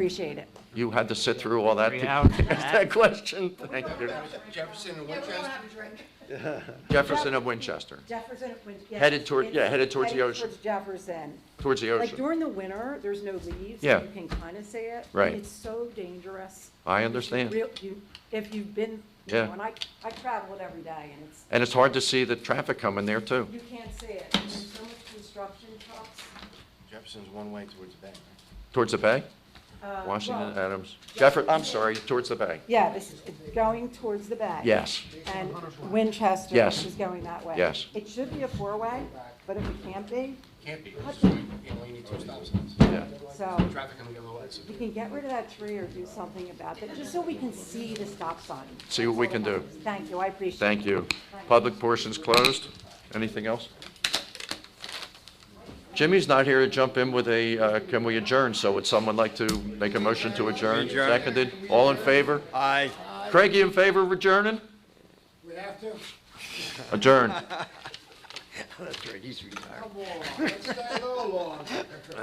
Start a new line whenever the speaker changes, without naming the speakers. Appreciate it.
You had to sit through all that
Three
to
hours.
answer that question? Thank you.
Jefferson and Winchester.
Jefferson of Winchester,
Jefferson, when- yeah.
Headed toward-
it-
yeah, headed towards the ocean.
Towards Jefferson.
towards the
Like
ocean.
during the winter, there's no leaves. so
Yeah.
You can kind of see it. and
Right.
It's so dangerous.
I understand.
Real- you- If you've been, you
Yeah.
know, and I, I travel it every day and it's,
And it's hard to see the traffic coming there, too.
you can't see it. And There's so much construction trucks.
Jefferson's one way towards the bank, right?
Towards the bay?
uh,
Washington,
well,
Adams. Jefferson, I'm sorry, towards the bay.
Yeah, this is going towards the back.
Yes.
And Winchester
Yes.
is going that way.
Yes.
It should be a four-way, but if it can't be,
Can't be, because you only need two stop signs.
Yeah.
so
Traffic on the yellow lights.
you can get rid of that tree or do something about it, just so we can see the stop sign.
See what we can do.
Thank you, I appreciate it.
Thank you. Public portion's closed. Anything else? Jimmy's not here to jump in with a, uh, can we adjourn? So would someone like to make a motion to adjourn? Seconded. All in favor?
Aye.
Craig, you in favor of adjourning?
We have to,
Adjourn.
That's right, he's retired.
come on, let's stay a little longer.